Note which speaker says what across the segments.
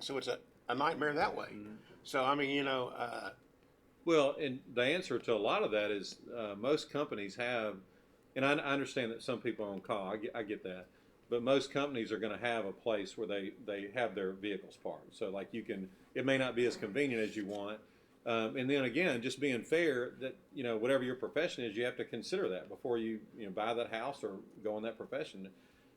Speaker 1: So it's a, a nightmare that way.
Speaker 2: Mm-hmm.
Speaker 1: So, I mean, you know, uh,
Speaker 3: Well, and the answer to a lot of that is uh, most companies have, and I, I understand that some people are on call. I get, I get that, but most companies are going to have a place where they they have their vehicles parked. So like you can, it may not be as convenient as you want. Um, and then again, just being fair that you know whatever your profession is, you have to consider that before you you know buy that house or go in that profession.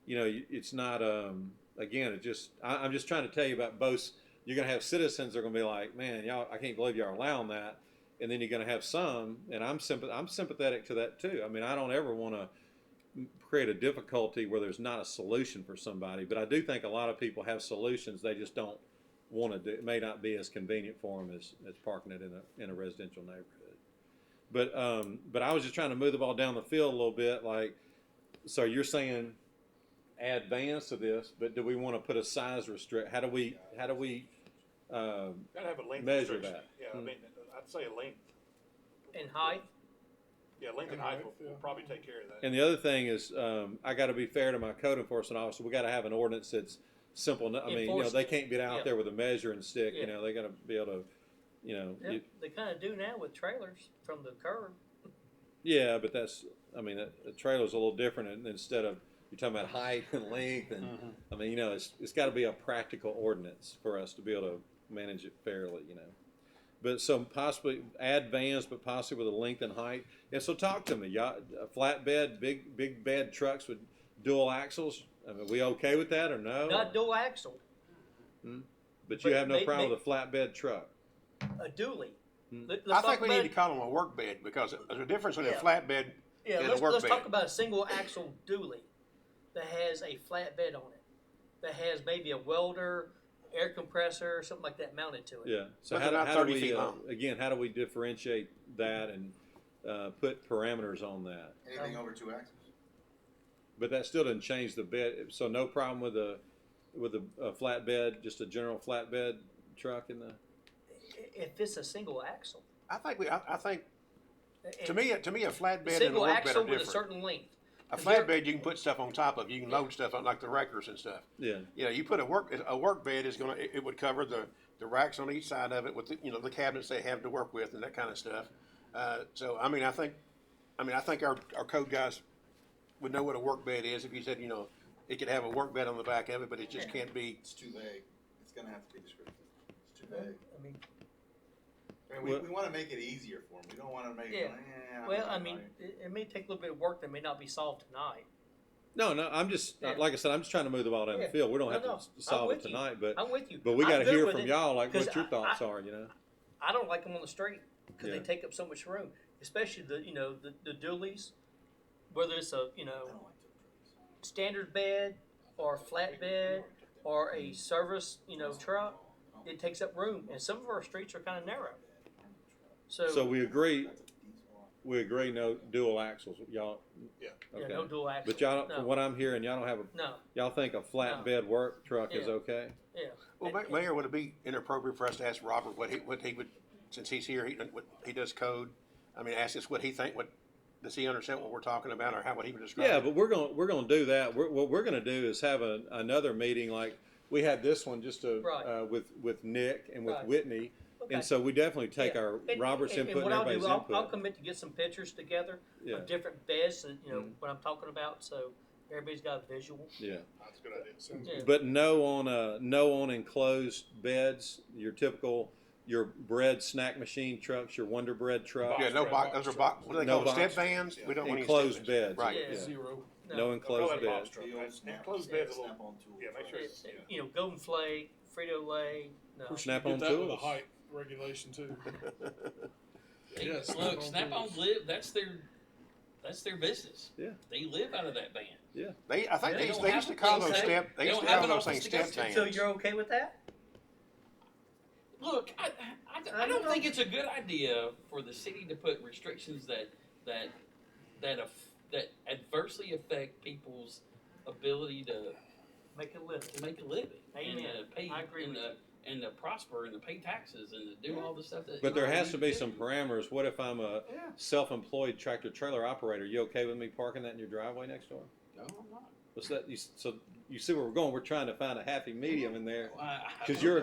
Speaker 3: You know, you- it's not um, again. It just I, I'm just trying to tell you about both. You're going to have citizens that are going to be like, man, y'all, I can't believe y'all allowing that and then you're going to have some and I'm sympath- I'm sympathetic to that too. I mean, I don't ever want to create a difficulty where there's not a solution for somebody, but I do think a lot of people have solutions they just don't want to do. It may not be as convenient for them as, as parking it in a in a residential neighborhood. But um but I was just trying to move the ball down the field a little bit like so you're saying add vans to this, but do we want to put a size restrict? How do we how do we um,
Speaker 4: Gotta have a length
Speaker 3: Measure
Speaker 4: restriction.
Speaker 3: that.
Speaker 4: Yeah, I
Speaker 5: Hmm.
Speaker 3: Mm.
Speaker 4: mean, I'd say a length,
Speaker 2: in height.
Speaker 4: yeah, length and height will, will probably take care of that.
Speaker 3: And the other thing is, um, I got to be fair to my code enforcement officer. We got to have an ordinance that's simple. eno- I mean, you know, they
Speaker 2: Enforceable.
Speaker 3: can't get out
Speaker 2: Yeah.
Speaker 3: there with a measuring stick. You
Speaker 2: Yeah.
Speaker 3: know, they got to be able to, you know,
Speaker 2: Yeah,
Speaker 3: you-
Speaker 2: they kind of do now with trailers from the curb.
Speaker 3: yeah. But that's, I mean, a, a trailer's a little different. And instead of you're talking about height and length, and
Speaker 2: Mm-hmm.
Speaker 3: I mean, you know, it's it's got to be a practical ordinance for us to be able to manage it fairly. You know. But so possibly add vans, but possibly with a length and height. And so talk to me. Y'all, a flatbed, big big bed trucks with dual axles. I mean, we okay with that or no?
Speaker 2: Not dual axle,
Speaker 3: but you have no
Speaker 2: But
Speaker 3: problem
Speaker 2: they-
Speaker 3: with a flatbed truck.
Speaker 2: a dually.
Speaker 3: Hmm.
Speaker 2: Let-
Speaker 1: I
Speaker 2: let's
Speaker 1: think
Speaker 2: talk
Speaker 1: we need to
Speaker 2: about-
Speaker 1: call them a work bed because there's a difference in a
Speaker 2: Yeah.
Speaker 1: flatbed
Speaker 2: Yeah,
Speaker 1: and a
Speaker 2: let's,
Speaker 1: work
Speaker 2: let's
Speaker 1: bed.
Speaker 2: talk about a single axle dually that has a flat bed on it, that has maybe a welder, air compressor, something like that mounted to it.
Speaker 3: Yeah. So
Speaker 1: But
Speaker 3: how, do-
Speaker 1: they're not
Speaker 3: how do
Speaker 1: 30
Speaker 3: we
Speaker 1: feet
Speaker 3: uh,
Speaker 1: long.
Speaker 3: again? How do we differentiate that and uh, put parameters on that?
Speaker 2: Um,
Speaker 6: Anything over two axes?
Speaker 3: But that still doesn't change the bed. So no problem with a with a, a flatbed, just a general flatbed truck in the.
Speaker 2: I- If it's a single axle.
Speaker 1: I think we, I, I think, to
Speaker 2: And
Speaker 1: me, to me, a flatbed and a
Speaker 2: Single
Speaker 1: work bed
Speaker 2: axle
Speaker 1: are
Speaker 2: with a
Speaker 1: different.
Speaker 2: certain length.
Speaker 1: A
Speaker 2: if you're-
Speaker 1: flatbed, you can put stuff on top of, you can load stuff on like the wreckers and stuff.
Speaker 3: Yeah.
Speaker 1: You know, you put a work, a work bed is gonna, it, it would cover the, the racks on each side of it with, the you know, the cabinets they have to work with and that kind of stuff. Uh, so, I mean, I think, I mean, I think our, our code guys would know what a work bed is if you said, you know, it could have a work bed on the back of it, but it just can't be,
Speaker 6: It's too vague. It's gonna have to be descriptive. It's too vague.
Speaker 2: I mean,
Speaker 6: I mean, we,
Speaker 3: Well-
Speaker 6: we wanna make it easier for them. We don't wanna make it,
Speaker 2: Yeah.
Speaker 6: eh,
Speaker 2: well,
Speaker 6: don't
Speaker 2: I
Speaker 6: know,
Speaker 2: mean,
Speaker 6: like-
Speaker 2: it, it may take a little bit of work that may not be solved tonight.
Speaker 3: No, no. I'm just
Speaker 2: Yeah.
Speaker 3: like I said. I'm just trying to move the ball down
Speaker 2: Yeah.
Speaker 3: the field. We don't
Speaker 2: No,
Speaker 3: have
Speaker 2: no,
Speaker 3: to s-
Speaker 2: I'm
Speaker 3: solve it
Speaker 2: with you.
Speaker 3: tonight, but
Speaker 2: I'm with you.
Speaker 3: but we
Speaker 2: I'm
Speaker 3: got to
Speaker 2: good
Speaker 3: hear
Speaker 2: with
Speaker 3: from
Speaker 2: it.
Speaker 3: y'all like
Speaker 2: 'cause
Speaker 3: what your
Speaker 2: I-
Speaker 3: thoughts
Speaker 2: I-
Speaker 3: are. You know.
Speaker 2: I don't like them on the street because
Speaker 3: Yeah.
Speaker 2: they take up so much room, especially the you know the, the dualies, whether it's a you
Speaker 6: I
Speaker 2: know
Speaker 6: don't like to.
Speaker 2: standard bed or a flat bed or a service you know truck, it takes up room, and some of our streets are kind of narrow. So,
Speaker 3: So we agree.
Speaker 6: That's a diesel.
Speaker 3: We agree. No dual axles. Y'all.
Speaker 4: Yeah.
Speaker 3: Okay.
Speaker 2: yeah, no dual axle.
Speaker 3: but y'all,
Speaker 2: no,
Speaker 3: from what I'm hearing, y'all don't have a
Speaker 2: no,
Speaker 3: Y'all think a flatbed work truck is
Speaker 2: Yeah.
Speaker 3: okay?
Speaker 2: yeah.
Speaker 1: well, Ma-
Speaker 2: And-
Speaker 1: Mayor, would it be inappropriate for us to ask Robert what he, what he would, since he's here, he, what, he does code? I mean, ask us what he think, what, does he understand what we're talking about or how would he would describe it?
Speaker 3: Yeah, but we're gonna we're gonna do that. We're, what we're gonna do is have a, another meeting like we had this one just to
Speaker 2: Right.
Speaker 3: uh, with with Nick and with
Speaker 2: Right.
Speaker 3: Whitney,
Speaker 2: Okay.
Speaker 3: and so we definitely take
Speaker 2: Yeah.
Speaker 3: our
Speaker 2: And-
Speaker 3: Robert's
Speaker 2: and-
Speaker 3: input and,
Speaker 2: and what I'll
Speaker 3: everybody's
Speaker 2: do, I'll,
Speaker 3: input.
Speaker 2: I'll commit to get some pictures together
Speaker 3: Yeah. Mm-hmm.
Speaker 2: of different beds, and you know what I'm talking about, so everybody's got a visual.
Speaker 3: yeah,
Speaker 4: That's a good idea.
Speaker 2: Yeah.
Speaker 3: but no on uh, no on enclosed beds. Your typical your bread snack machine trucks, your Wonder Bread truck,
Speaker 1: Yeah, no
Speaker 4: Box
Speaker 1: box,
Speaker 4: truck.
Speaker 1: those are box, what do they
Speaker 3: No
Speaker 1: call them, step
Speaker 3: box.
Speaker 1: vans? We don't want any step
Speaker 3: enclosed beds.
Speaker 1: Right.
Speaker 2: Yeah.
Speaker 5: Zero.
Speaker 3: No enclosed
Speaker 4: Probably box
Speaker 3: beds.
Speaker 4: truck.
Speaker 6: The old snap.
Speaker 4: Closed bed's a little,
Speaker 6: Snap-on tool.
Speaker 4: yeah, make sure it's, yeah.
Speaker 2: You know, Golden Flake, Frito Lay. No.
Speaker 5: Of course,
Speaker 3: Snap
Speaker 5: you
Speaker 3: on
Speaker 5: get that with a
Speaker 3: tools.
Speaker 5: height regulation too. Yeah,
Speaker 7: Look, Snap on
Speaker 5: tools.
Speaker 7: live. That's their that's their business.
Speaker 3: Yeah.
Speaker 7: they live out of that van.
Speaker 1: They, I think
Speaker 7: They
Speaker 1: they, used-
Speaker 7: don't
Speaker 1: they
Speaker 7: have
Speaker 1: used to call
Speaker 7: a place
Speaker 1: those
Speaker 7: to-
Speaker 1: step, they
Speaker 7: they
Speaker 1: used to
Speaker 7: don't have
Speaker 1: call
Speaker 7: an
Speaker 1: those
Speaker 7: office
Speaker 1: things
Speaker 7: to
Speaker 1: step
Speaker 7: go to.
Speaker 2: So
Speaker 1: vans.
Speaker 2: you're okay with that?
Speaker 7: Look, I, I- I, I don't think it's a good idea for the city to put restrictions that that that af- that adversely affect people's ability to,
Speaker 2: Make a list.
Speaker 7: to make a living and
Speaker 2: Amen.
Speaker 7: to pay
Speaker 2: I agree
Speaker 7: and,
Speaker 2: with
Speaker 7: to, and to prosper and to pay taxes and to do all the stuff that.
Speaker 3: But there
Speaker 7: you
Speaker 3: has to be
Speaker 7: do.
Speaker 3: some parameters. What if I'm a
Speaker 7: Yeah.
Speaker 3: self-employed tractor trailer operator? You okay with me parking that in your driveway next door?
Speaker 7: No, I'm not.
Speaker 3: What's that? You, so you see where we're going? We're trying to find a happy medium in there.
Speaker 7: I- I-
Speaker 3: Because you're a